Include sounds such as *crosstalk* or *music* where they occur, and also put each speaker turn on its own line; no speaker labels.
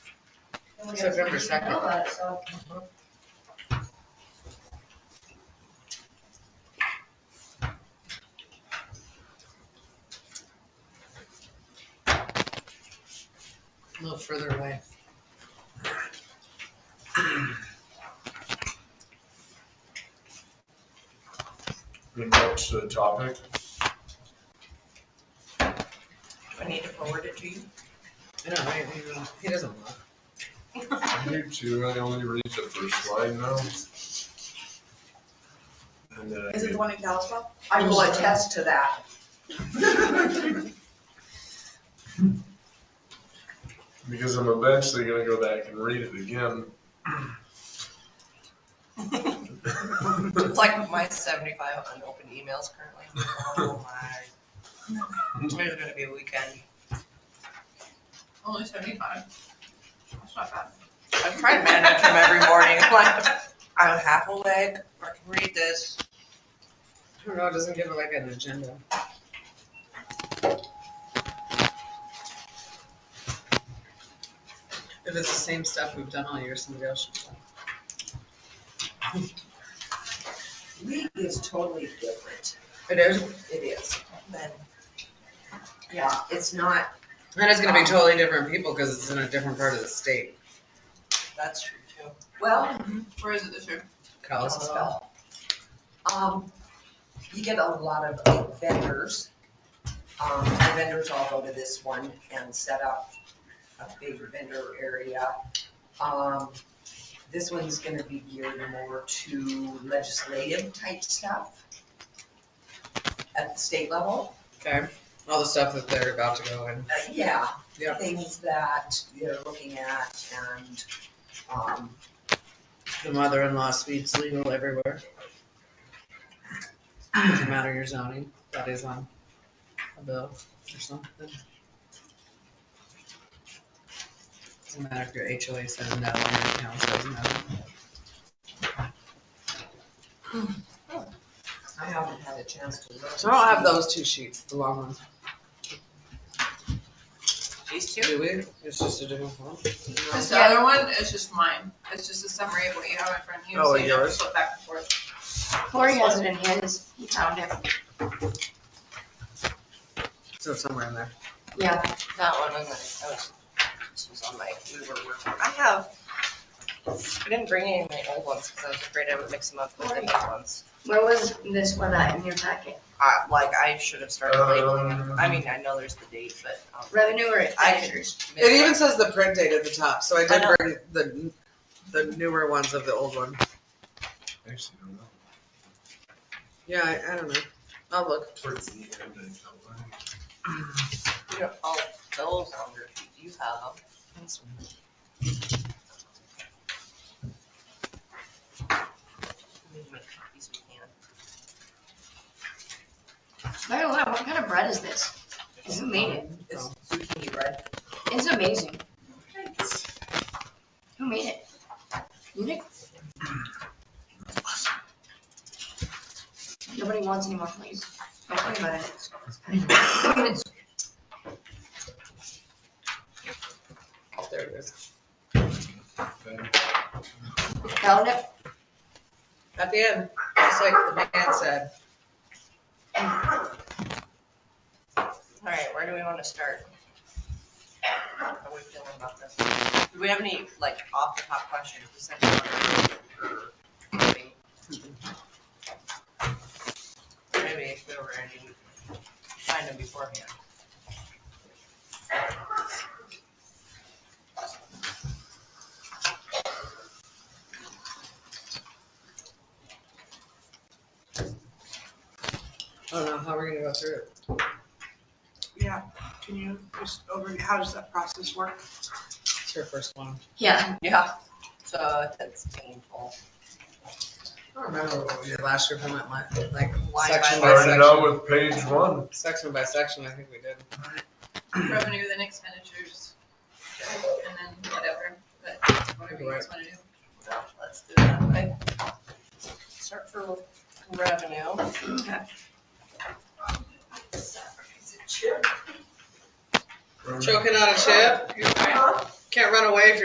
September second. A little further away.
Good notes to the topic.
I need to forward it to you.
I don't know, I- I mean, he doesn't look.
You too, I only read the first slide now. And then I
Is it
get-
the one in Kalispell? I will attest to that.
because I'm eventually gonna go back and read it again. Um,
It's like my seventy-five unopened emails currently. Oh my. Today's gonna be a weekend.
Only seventy-five. That's not bad.
I'm trying to manage them every morning. *laughs* I'm like, I'm half awake, I can read this.
I don't know, it doesn't give it like an agenda. If it's the same stuff we've done all year, somebody else should. try.
League is totally different.
It is,
It is. Then, yeah, it's not,
and it's gonna be totally different people, cause it's in a different part of the state.
that's true too. Well,
Where is it this year?
Kalispell.
Kalispell. Um, you get a lot of vendors. Um, the vendors all go to this one and set up a big vendor area. Um, this one's gonna be geared more to legislative type stuff at the state level.
Okay, all the stuff that they're about to go in.
Uh, yeah,
Yeah.
things that they're looking at and, um,
The mother-in-law suite's legal everywhere. Doesn't matter your zoning, that is on a bill or something. Doesn't matter if your HOA says no, or your town says no.
I haven't had a chance to look.
So I'll have those two sheets, the long ones.
These
Do we? It's just a different one.
This other one is just mine. It's just a summary of what you have in front of you.
Oh,
so you don't
yours?
Flip back and forth.
Corey has it in his, he found it.
So it's somewhere in there.
Yeah,
That one was, I was, this was on my, we were working. I have, I didn't bring any of my old ones because I was afraid I would mix them up with the new ones.
where was this one at in your packet?
Uh, like I should have started labeling them. I mean, I know there's the date, but. um,
Revenue or expenditures?
It even says the print date at the top, so I
I
did
know.
bring the, the newer ones of the old one.
Actually, I don't know.
Yeah, I, I don't know. I'll look.
Towards the end, I don't know.
You don't- Oh, those are under, you have them. Move my copies we can.
I don't know, what kind of bread is this? It's amazing.
It's zucchini bread.
It's amazing. Who made it? You did? Nobody wants any more, please. Don't worry about it. It's-
Oh, There it is.
Found it?
At the end, just like the man said.
All right, where do we want to start? How are we feeling about this? Do we have any, like, off the top questions? Does anyone- Maybe if we were any, find them beforehand.
I don't know, how we're gonna go through it.
Yeah, can you just over, how does that process work?
It's your first one.
Yeah,
Yeah. So that's painful.
I don't remember what we did last year, if I went like, like
Line by
section by
Started out
section.
with page one.
Section by section, I think we did.
*clears throat* Revenue, then expenditures, and then whatever, but whatever you guys wanna do.
Well, let's do it that way. Start for revenue.
Choking on a chip,
Okay.
can't run away from